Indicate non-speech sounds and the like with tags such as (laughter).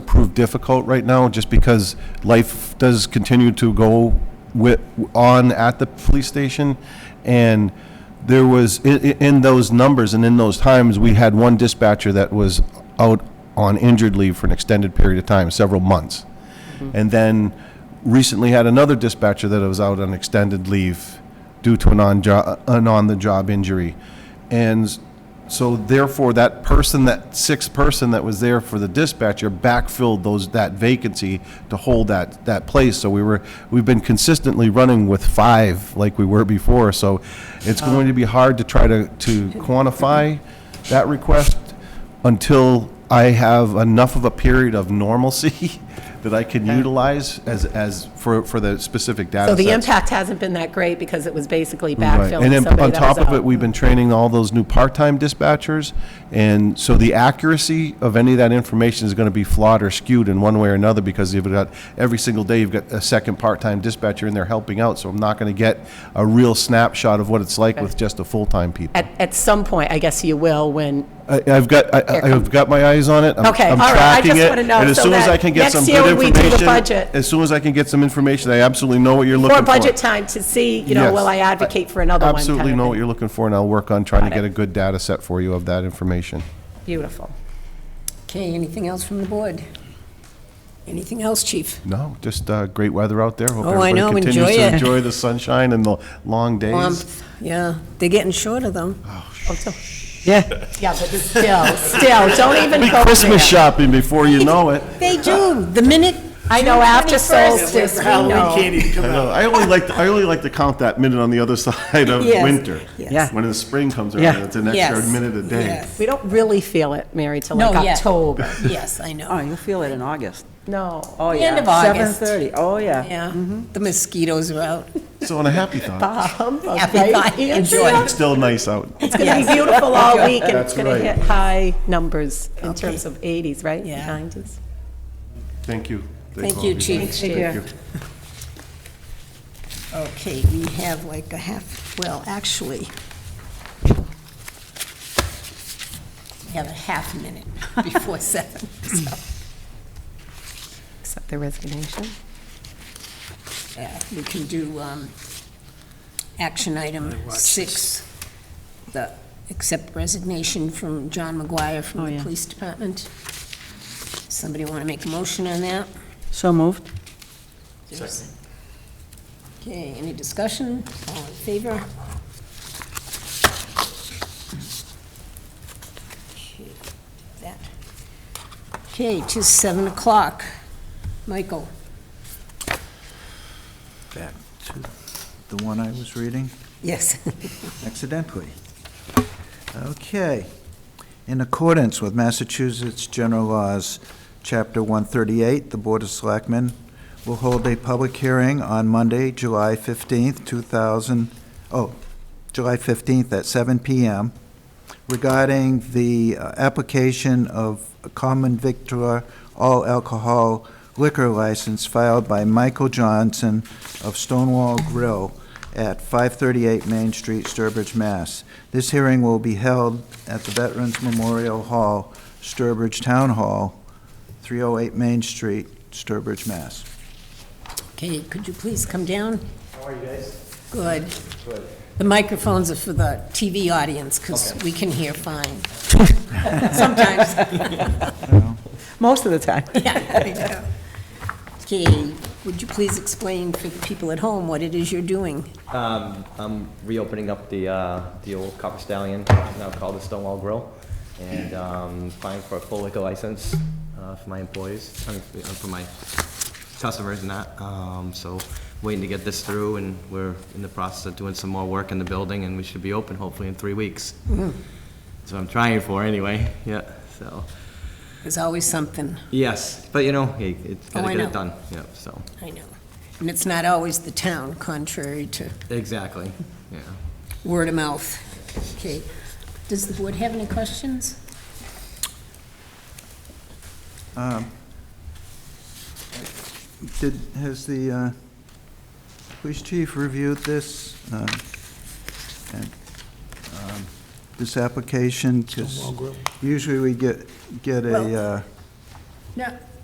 prove difficult right now, just because life does continue to go wi on at the police station, and there was, i- i- in those numbers and in those times, we had one dispatcher that was out on injured leave for an extended period of time, several months. And then recently had another dispatcher that was out on extended leave due to an on-job, an on-the-job injury. And s- so therefore, that person, that sixth person that was there for the dispatcher backfilled those, that vacancy to hold that, that place. So we were, we've been consistently running with five like we were before. So it's going to be hard to try to, to quantify that request until I have enough of a period of normalcy (laughs) that I can utilize as, as, for, for the specific data So the sets. impact hasn't been that great because it was basically Right. And backfilling then on somebody that top was of it, out. we've been training all those new part-time dispatchers. And so the accuracy of any of that information is going to be flawed or skewed in one way or another because you've got, every single day, you've got a second part-time dispatcher in there helping out. So I'm not going to get a real snapshot of what it's like with just a full-time people. At, at some point, I guess you will when, I- I've got, I- I- I've got my eyes on it. I'm- Okay, I'm all right, I tracking just it, wanna know And as so soon as that I can get next some year good when we do the information, budget- as soon as I can get some information, I absolutely know what you're looking for for. budget time to see, you know, Yes. will I advocate for another one? Absolutely kind of know thing. what you're looking for, and I'll work on trying to Got get it. a good data set for you of that information. Beautiful. Okay, anything else from the board? Anything else, chief? No, just uh, great weather out there. Hope Oh, I everybody know, continues enjoy to it. Enjoy the sunshine and the long days. Warmth, Um, Yeah, they're getting shorter, though. Oh, so- Yeah, but still, still, don't even Be go there. Christmas shopping before (laughs) you know it. They do, the minute. I know after 21st. solstice, we Halloween know. can't even come I out. know. I only like, to- I only like to count that minute on the other (laughs) side of Yes, winter. yes. Yeah. When the spring comes Yeah. around, it's an extra Yes, minute a day. yes. We don't really feel it, Mary, till No, like yeah. October. Yes, I know. Oh, you'll feel it in August. No. Oh, The yeah. end of August. 7:30, oh, yeah. Yeah, Mm-hmm. the mosquitoes are out. So on a happy thought, (laughs) Humbug, (laughs) Happy right? Friday. Andrea? Enjoy. it's still nice out. It's going to be beautiful all week, and That's it's going to right. hit high numbers in Okay. terms of 80s, right? Yeah. 90s? Thank you. Thank all you, of chief. Thank you. Okay, we have like a half, well, actually, we have a half minute (laughs) before seven. so, Accept the resignation. yeah, We can do um, action item six, the accept resignation from John McGuire Oh, from the yeah. police department. Somebody want to make a motion on that? So moved? Okay, any discussion? All in favor? Okay, that. Okay, it is seven o'clock. Michael, back to the one I was reading yes. accidentally. Okay. In accordance with Massachusetts General Laws, Chapter 138, the Board of Selectmen will hold a public hearing on Monday, July 15th, 2000, oh, July 15th at 7 PM regarding the uh, application of a common victor all alcohol liquor license filed by Michael Johnson of Stonewall Grill at 538 Main Street, Sturbridge, Mass. This hearing will be held at the Veterans Memorial Hall, Sturbridge Town Hall, 308 Main Street, Sturbridge, Mass. Okay, could you please come down? How are you guys? Good. The microphones are for the TV audience, because we can hear fine. (laughs) Sometimes. Most of the time. Yeah. Okay, would you please explain for the people at home what it is you're doing? Um, I'm reopening up the, uh, the old Copper Stallion, now called the Stonewall Grill, and, um, applying for a full liquor license, uh, for my employees, I mean, for- uh, for my customers and that, um, so waiting to get this through, and we're in the process of doing some more work in the building, and we should be open hopefully in three weeks. Mm-hmm. That's what I'm trying for, anyway, yeah, so, There's always something, yes, but you know, hey, it's Oh, gotta I get know. it done, yeah, so, I know. And it's not always the town, contrary to exactly, yeah. word of mouth. Okay. Does the board have any questions? Um, Did, has the uh, police chief reviewed this, um, and, um, this application? 'Cause usually we get, get a, Well- uh, No.